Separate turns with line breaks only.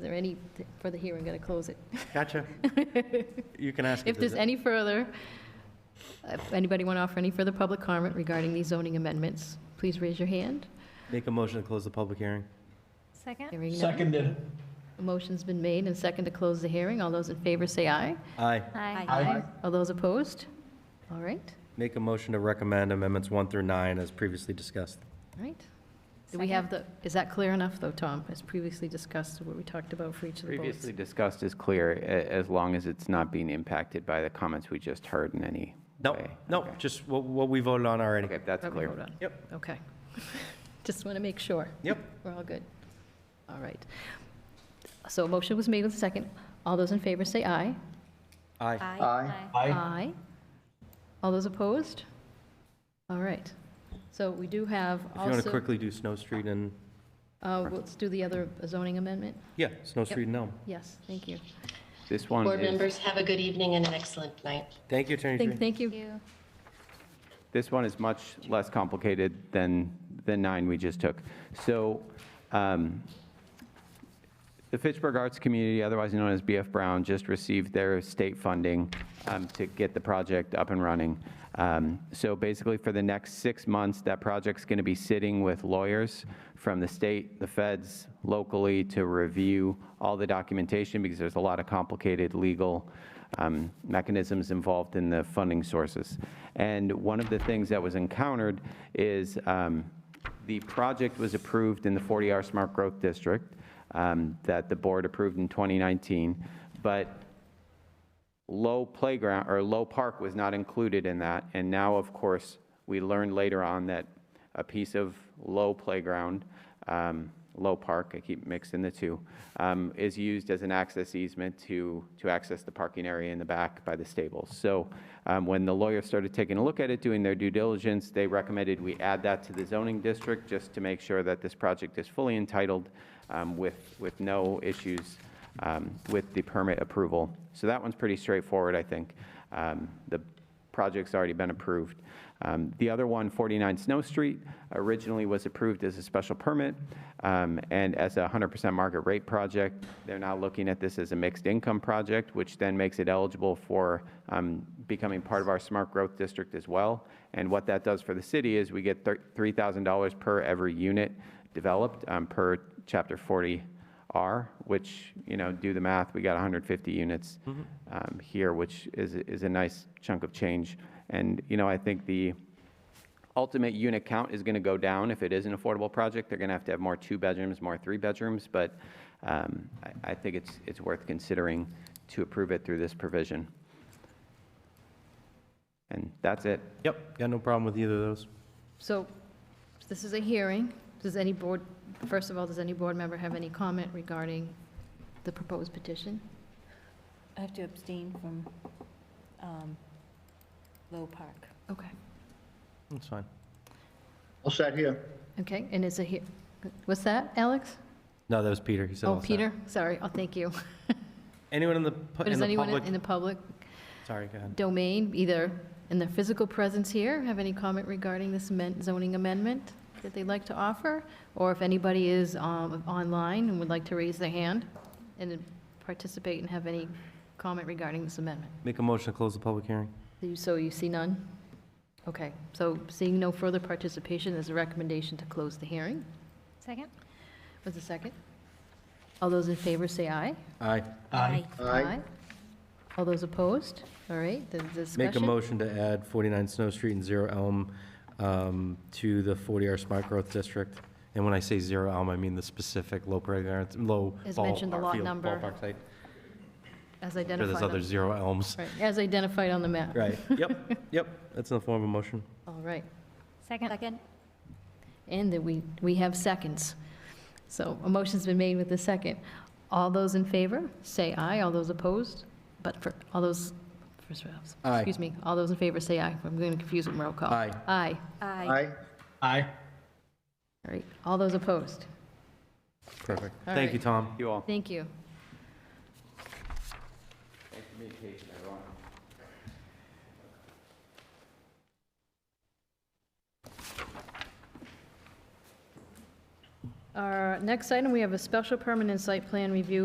there any th- further here, I'm going to close it.
Gotcha. You can ask.
If
it, does
there's
it-
any further, if anybody want to offer any further public comment regarding these zoning amendments, please raise your hand.
Make a motion to close the public hearing.
Second?
Hearing none.
Seconded.
A Motion's been made and second to close the hearing. All those in favor say aye.
Aye.
Aye.
Aye.
All those opposed? All right,
Make a motion to recommend amendments one through nine as previously discussed.
all right. Do we have the, is that clear enough, though, Tom, as previously discussed, what we talked about for each of the votes?
Previously discussed is clear, a- as long as it's not being impacted by the comments we just heard in any
No,
way.
no,
Okay.
just what, what we voted on already.
Okay, that's
That we
clear.
vote on.
Yep.
Okay. Just want to make sure.
Yep.
We're all good. All right. So a motion was made with a second. All those in favor say aye.
Aye.
Aye.
Aye. All those opposed? All right. So we do have
If you
also.
want to quickly do Snow Street and,
uh, Let's do the other zoning amendment.
yeah, Snow Street and Elm.
Yes, thank you.
This one
Board
is,
members, have a good evening and an excellent night.
Thank you, Attorney
Thank
Green.
thank you.
You.
this one is much less complicated than the nine we just took. So um, the Fitchburg Arts Community, otherwise known as BF Brown, just received their state funding um, to get the project up and running. Um, So basically, for the next six months, that project's going to be sitting with lawyers from the state, the feds, locally, to review all the documentation, because there's a lot of complicated legal um, mechanisms involved in the funding sources. And one of the things that was encountered is um, the project was approved in the 40R Smart Growth District um, that the board approved in 2019, but low playground, or low park was not included in that. And now, of course, we learned later on that a piece of low playground, um, low park, I keep mixing the two, um, is used as an access easement to, to access the parking area in the back by the stables. So um, when the lawyers started taking a look at it, doing their due diligence, they recommended we add that to the zoning district just to make sure that this project is fully entitled um, with, with no issues um, with the permit approval. So that one's pretty straightforward, I think. Um, The project's already been approved. Um, The other one, 49 Snow Street, originally was approved as a special permit um, and as a 100% market rate project. They're now looking at this as a mixed income project, which then makes it eligible for um, becoming part of our smart growth district as well. And what that does for the city is we get thir- $3,000 per every unit developed um, per Chapter 40 R, which, you know, do the math, we got 150 units um, here, which is, is a nice chunk of change. And, you know, I think the ultimate unit count is going to go down if it is an affordable project. They're going to have to have more two-bedrooms, more three-bedrooms, but um, I, I think it's, it's worth considering to approve it through this provision. And that's it.
Yep, got no problem with either of those.
So this is a hearing. Does any board, first of all, does any board member have any comment regarding the proposed petition?
I have to abstain from um, Low Park.
Okay.
That's fine.
All set here.
Okay, and is it here, what's that, Alex?
No, that was Peter. He said
Oh,
all set.
Peter, sorry, oh, thank you.
Anyone in the, pu- in
Does
the
anyone in
public?
the public
Sorry, go ahead.
domain, either in their physical presence here, have any comment regarding this amen- zoning amendment that they'd like to offer? Or if anybody is um, online and would like to raise their hand and participate and have any comment regarding this amendment?
Make a motion to close the public hearing.
Do you- So you see none? Okay, so seeing no further participation, there's a recommendation to close the hearing.
Second?
Was a second? All those in favor say aye.
Aye.
Aye.
All those opposed? All right, the discussion.
Make a motion to add 49 Snow Street and Zero Elm um, to the 40R Smart Growth District. And when I say Zero Elm, I mean the specific low playground, low
As mentioned, the
ballpark
lot
field,
number.
ballpark site.
As
I'm Sure,
identified.
there's
on-
other Zero Elms.
Right, As identified on the map.
Right, yep, yep, that's in the form of a motion.
All right.
Second?
Second?
And that we, we have seconds. So a motion's been made with the second. All those in favor, say aye. All those opposed, but for, all those, first,
Aye.
excuse me, all those in favor, say aye. I'm going to confuse with roll call.
Aye.
Aye.
Aye.
Aye.
All right. All those opposed.
Perfect.
All
Thank you,
right.
Tom.
You all.
Thank you. Our next item, we have a special permanent site plan review